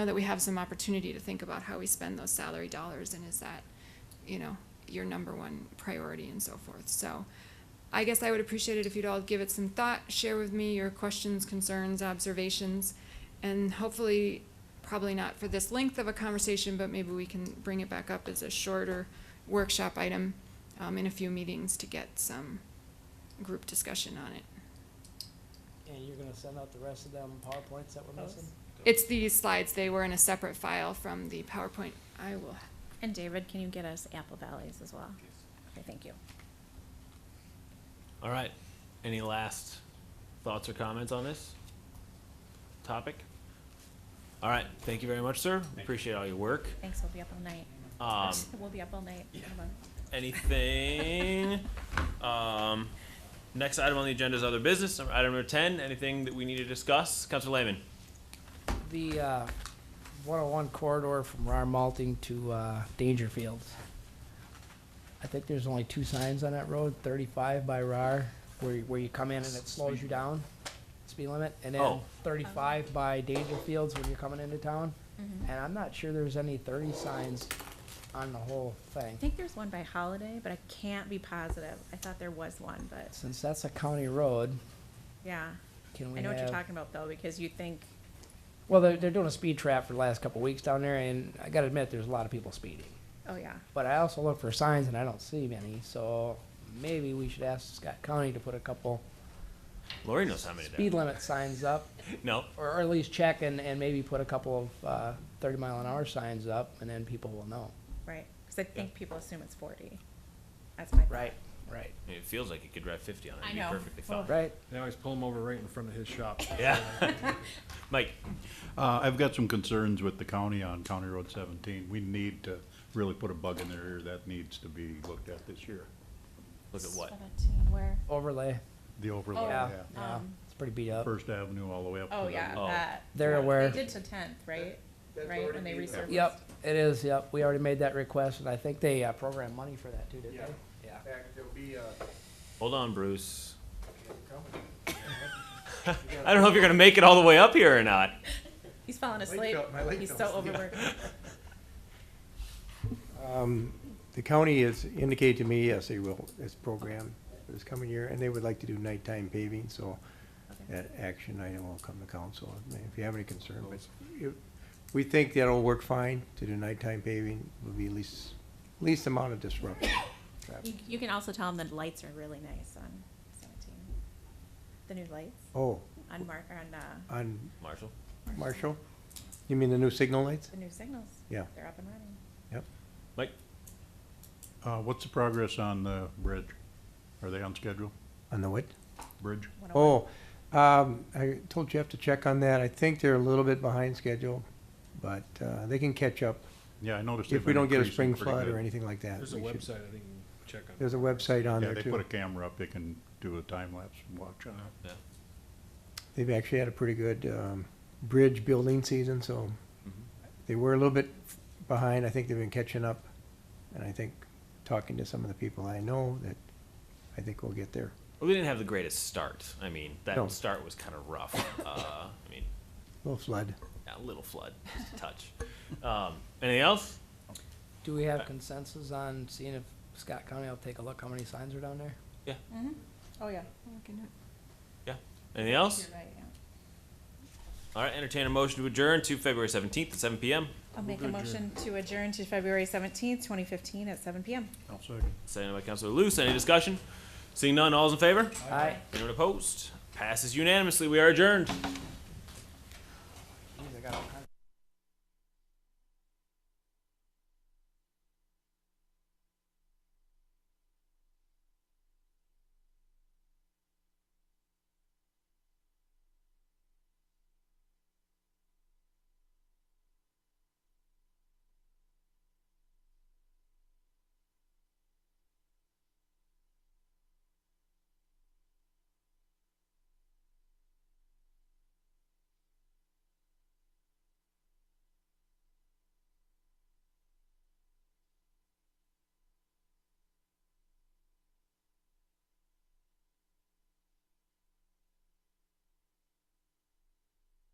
know that we have some opportunity to think about how we spend those salary dollars and is that, you know, your number one priority and so forth. So I guess I would appreciate it if you'd all give it some thought, share with me your questions, concerns, observations, and hopefully, probably not for this length of a conversation, but maybe we can bring it back up as a shorter workshop item um, in a few meetings to get some group discussion on it. And you're gonna send out the rest of them PowerPoints that we're missing? It's these slides, they were in a separate file from the PowerPoint. I will, And David, can you get us Apple Valleys as well? Okay, thank you. All right. Any last thoughts or comments on this topic? All right. Thank you very much, sir. Appreciate all your work. Thanks, we'll be up all night. Um, We'll be up all night. Hold on. anything? Um, next item on the agenda is other business. Number- Item number ten. Anything that we need to discuss, Councilor Lehman? The, uh, one oh one corridor from Rar Malting to, uh, Dangerfield. I think there's only two signs on that road, thirty-five by Rar, where, you- where you come in and it slows you down, speed limit, and then Oh. Um. thirty-five by Dangerfields when you're coming into town. Mm-hmm. And I'm not sure there's any thirty signs on the whole thing. I think there's one by Holiday, but I can't be positive. I thought there was one, but Since that's a county road, yeah. can we I know what you're have- talking about though, because you think, Well, they're, they're doing a speed trap for the last couple of weeks down there, and I gotta admit, there's a lot of people speeding. oh yeah. But I also look for signs, and I don't see many, so maybe we should ask Scott County to put a couple Lori knows how many there. speed limit signs up, are. No. or or at least check and, and maybe put a couple of, uh, thirty mile an hour signs up, and then people will know. Right, because I think people assume it's forty. That's my. thought. Right. It feels like you could drive fifty on it. I It'd be know. perfectly Well- fine. Right, They always pull him over right in front of his shop. Yeah. Mike. Uh, I've got some concerns with the county on County Road seventeen. We need to really put a bug in their ear. That needs to be looked at this year. Look at what? Seventeen, where? overlay, The overlay, Oh, yeah, yeah. yeah, um, it's pretty beat up. First Avenue all the way up to Oh, the. yeah, Oh. that. They're aware. They did to tenth, right? Right, when they resurfaced. Yep, it is, yep, we already made that request, and I think they, uh, programmed money for that too, didn't Yeah. they? Yeah. fact, there'll be, uh, Hold on, Bruce. I don't know if you're gonna make it all the way up here or not. He's falling Lake asleep. fell- my leg He's so fell asleep. overworked. The county has indicated to me, yes, they will, this program for this coming year, and they would like to do nighttime paving, so Okay. that action item will come to council, I mean, if you have any concern, but you- we think that'll work fine to do nighttime paving, will be least, least amount of disruption. You, you can also tell them the lights are really nice on seventeen. The new lights Oh, on Mark, on, uh, on Marshall. Marshall, you mean the new signal lights? the new signals. Yeah. They're up and running. Yep, Mike. Uh, what's the progress on the bridge? Are they on schedule? on the what? Bridge? 101. Oh, um, I told Jeff to check on that, I think they're a little bit behind schedule, but, uh, they can catch up. Yeah, I noticed. If they've we been don't get a increasing spring pretty flood good. or anything like that. there's a we should- website, I think, you can check on. There's a website on Yeah, there they put a too. camera up. They can do a time lapse and watch on it. Yeah. They've actually had a pretty good, um, bridge building season, so Mm-hmm. they were a little bit behind. I think they've been catching up. And I think, talking to some of the people I know, that I think we'll get there. Well, we didn't have the greatest start. I mean, that No. start was kind of rough. Uh, I mean, A little flood. yeah, a little flood, just a touch. Um, anything else? Do we have consensus on seeing if Scott County will take a look how many signs are down there? Oh, yeah. Yeah. Anything else? You're right, yeah. All right. Entertain a motion to adjourn to February 17th at 7 p.m. I'll make a motion to adjourn to February seventeenth, twenty fifteen at seven PM. I'll second. Seconded by Councilor Luce. Any discussion? Seeing none, all's in favor? Aye. Anyone opposed? Passes unanimously. We are adjourned.